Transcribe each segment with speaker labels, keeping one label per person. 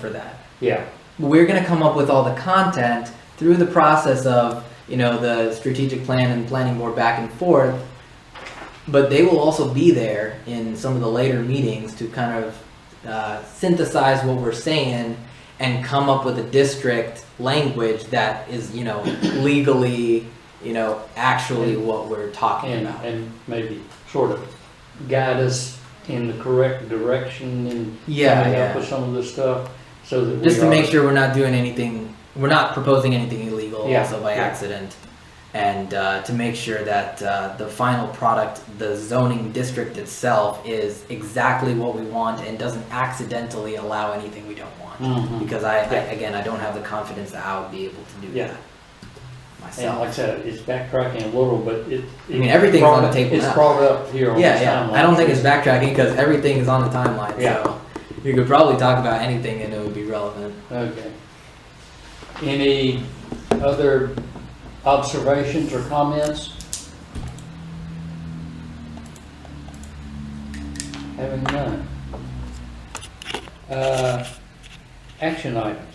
Speaker 1: for that.
Speaker 2: Yeah,
Speaker 1: We're going to come up with all the content through the process of, you know, the strategic plan and planning board back and forth. But they will also be there in some of the later meetings to kind of uh, synthesize what we're saying and come up with a district language that is, you know, legally, you know, actually what we're talking
Speaker 2: and,
Speaker 1: about.
Speaker 2: and maybe sort of guide us in the correct direction and
Speaker 1: Yeah,
Speaker 2: coming
Speaker 1: yeah.
Speaker 2: up with some of this stuff, so that we
Speaker 1: just to
Speaker 2: are-
Speaker 1: make sure we're not doing anything we're not proposing anything illegal
Speaker 2: Yeah,
Speaker 1: also by
Speaker 2: yeah.
Speaker 1: accident and uh, to make sure that uh, the final product the zoning district itself is exactly what we want and doesn't accidentally allow anything we don't want
Speaker 2: Mhm.
Speaker 1: because I, I
Speaker 2: Yeah.
Speaker 1: again i don't have the confidence that i would be able to do
Speaker 2: Yeah.
Speaker 1: that
Speaker 2: And like I
Speaker 1: myself
Speaker 2: said, it's backtracking a little, but it.
Speaker 1: I mean, everything's on the table
Speaker 2: It's
Speaker 1: now.
Speaker 2: brought up here on this
Speaker 1: yeah yeah
Speaker 2: timeline.
Speaker 1: i don't think it's backtracking because everything is on the timeline
Speaker 2: Yeah.
Speaker 1: so you could probably talk about anything and it would be relevant
Speaker 2: Okay. Any other observations or comments? Having none. Uh, Action items.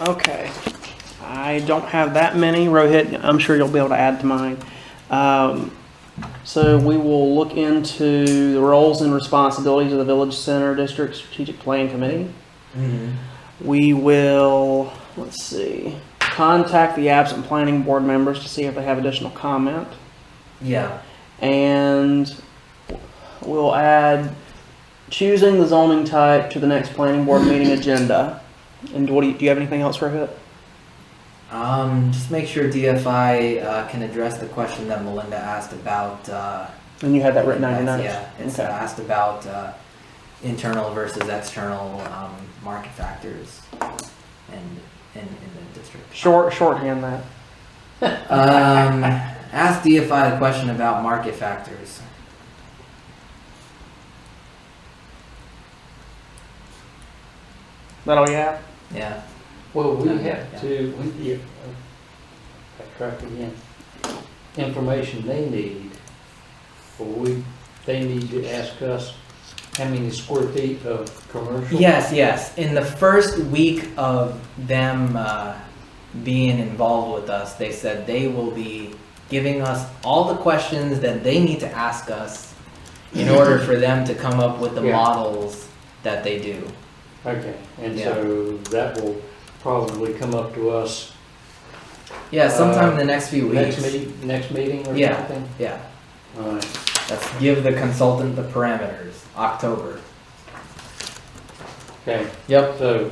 Speaker 3: Okay. I don't have that many. Rohit, I'm sure you'll be able to add to mine. Um, so we will look into the roles and responsibilities of the Village Center District Strategic Plan Committee.
Speaker 2: Mm-hmm.
Speaker 3: We will, let's see, contact the absent planning board members to see if they have additional comment.
Speaker 1: yeah
Speaker 3: And we'll add choosing the zoning type to the next planning board meeting agenda. And what do you, do you have anything else, Rohit?
Speaker 1: Um, just make sure DFI uh, can address the question that Melinda asked about. Uh,
Speaker 3: And you had that written down your notes?
Speaker 1: Yeah, it's
Speaker 3: Okay.
Speaker 1: asked about uh, internal versus external um, market factors, and in, in the district.
Speaker 3: Short, shorthand that.
Speaker 1: Um, ask DFI the question about market factors.
Speaker 3: That all you have?
Speaker 1: Yeah.
Speaker 2: Well, we
Speaker 1: Okay, yeah.
Speaker 2: have to, we, yeah, uh, backtrack again. Information they need, or we, they need to ask us how many square feet of commercial.
Speaker 1: Yes, yes. In the first week of them uh, being involved with us, they said they will be giving us all the questions that they need to ask us in order for them to come up with the
Speaker 2: Yeah.
Speaker 1: models that they do.
Speaker 2: Okay, and
Speaker 1: Yeah.
Speaker 2: so that will probably come up to us
Speaker 1: Yeah, sometime in the
Speaker 2: Uh,
Speaker 1: next few weeks.
Speaker 2: next meet, next meeting or
Speaker 1: Yeah.
Speaker 2: something?
Speaker 1: Yeah,
Speaker 2: All right.
Speaker 1: let's give the consultant the parameters. October.
Speaker 2: Okay,
Speaker 1: Yep.
Speaker 2: so,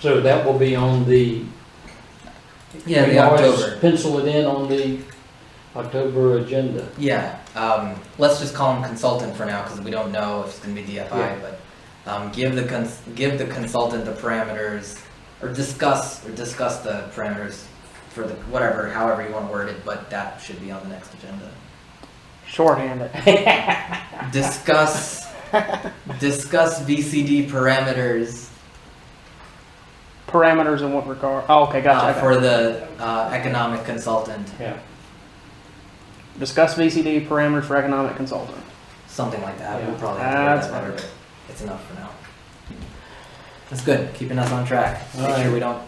Speaker 2: so that will be on the.
Speaker 1: Yeah,
Speaker 2: we
Speaker 1: the
Speaker 2: always
Speaker 1: October.
Speaker 2: Pencil it in on the October agenda.
Speaker 1: Yeah, um, let's just call him consultant for now because we don't know if it's gonna be DFI.
Speaker 2: Yeah.
Speaker 1: But um, give the cons- give the consultant the parameters, or discuss or discuss the parameters for the whatever, however you want to word it. But that should be on the next agenda.
Speaker 3: Shorthand it.
Speaker 1: Discuss discuss VCD parameters uh,
Speaker 3: Parameters in what regard? Oh, okay,
Speaker 1: uh,
Speaker 3: gotcha.
Speaker 1: for the uh, economic consultant,
Speaker 2: Yeah,
Speaker 3: Discuss VCD parameters for economic consultant.
Speaker 1: something like that. We'll
Speaker 2: Yeah.
Speaker 1: probably have to
Speaker 3: That's
Speaker 1: word that better,
Speaker 3: fine.
Speaker 1: but it's enough for now. That's good, keeping us on track. Make
Speaker 2: Alright.
Speaker 1: sure we don't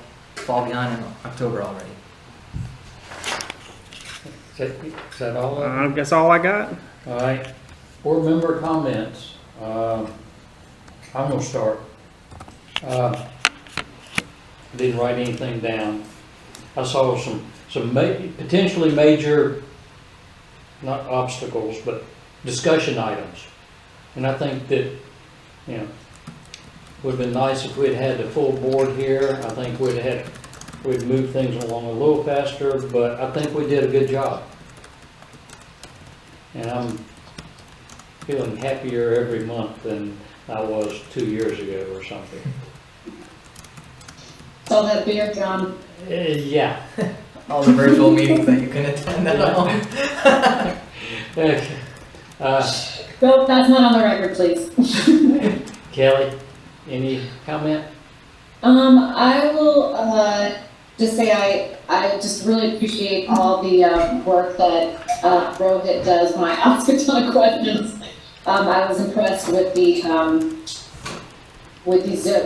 Speaker 1: fall behind in October already.
Speaker 2: is that, is that all? of it?
Speaker 3: Uh, that's all I got.
Speaker 2: All right, board member comments. Um, I'm gonna start. Uh, Didn't write anything down. I saw some, some ma- potentially major, not obstacles, but discussion items. And I think that, you know, would've been nice if we'd had the full board here. I think we'd had, we'd moved things along a little faster, but I think we did a good job. And I'm feeling happier every month than I was two years ago or something.
Speaker 4: So that beer, John.
Speaker 2: Uh, Yeah.
Speaker 1: All the virtual meetings that you can attend at home.
Speaker 2: Uh,
Speaker 4: Nope, that's not on the record, please.
Speaker 2: Kelly, any comment?
Speaker 4: Um, I will, uh, just say I, I just really appreciate all the, um, work that, uh, Rohit does when I ask a ton of questions. Um, I was impressed with the, um, with the zip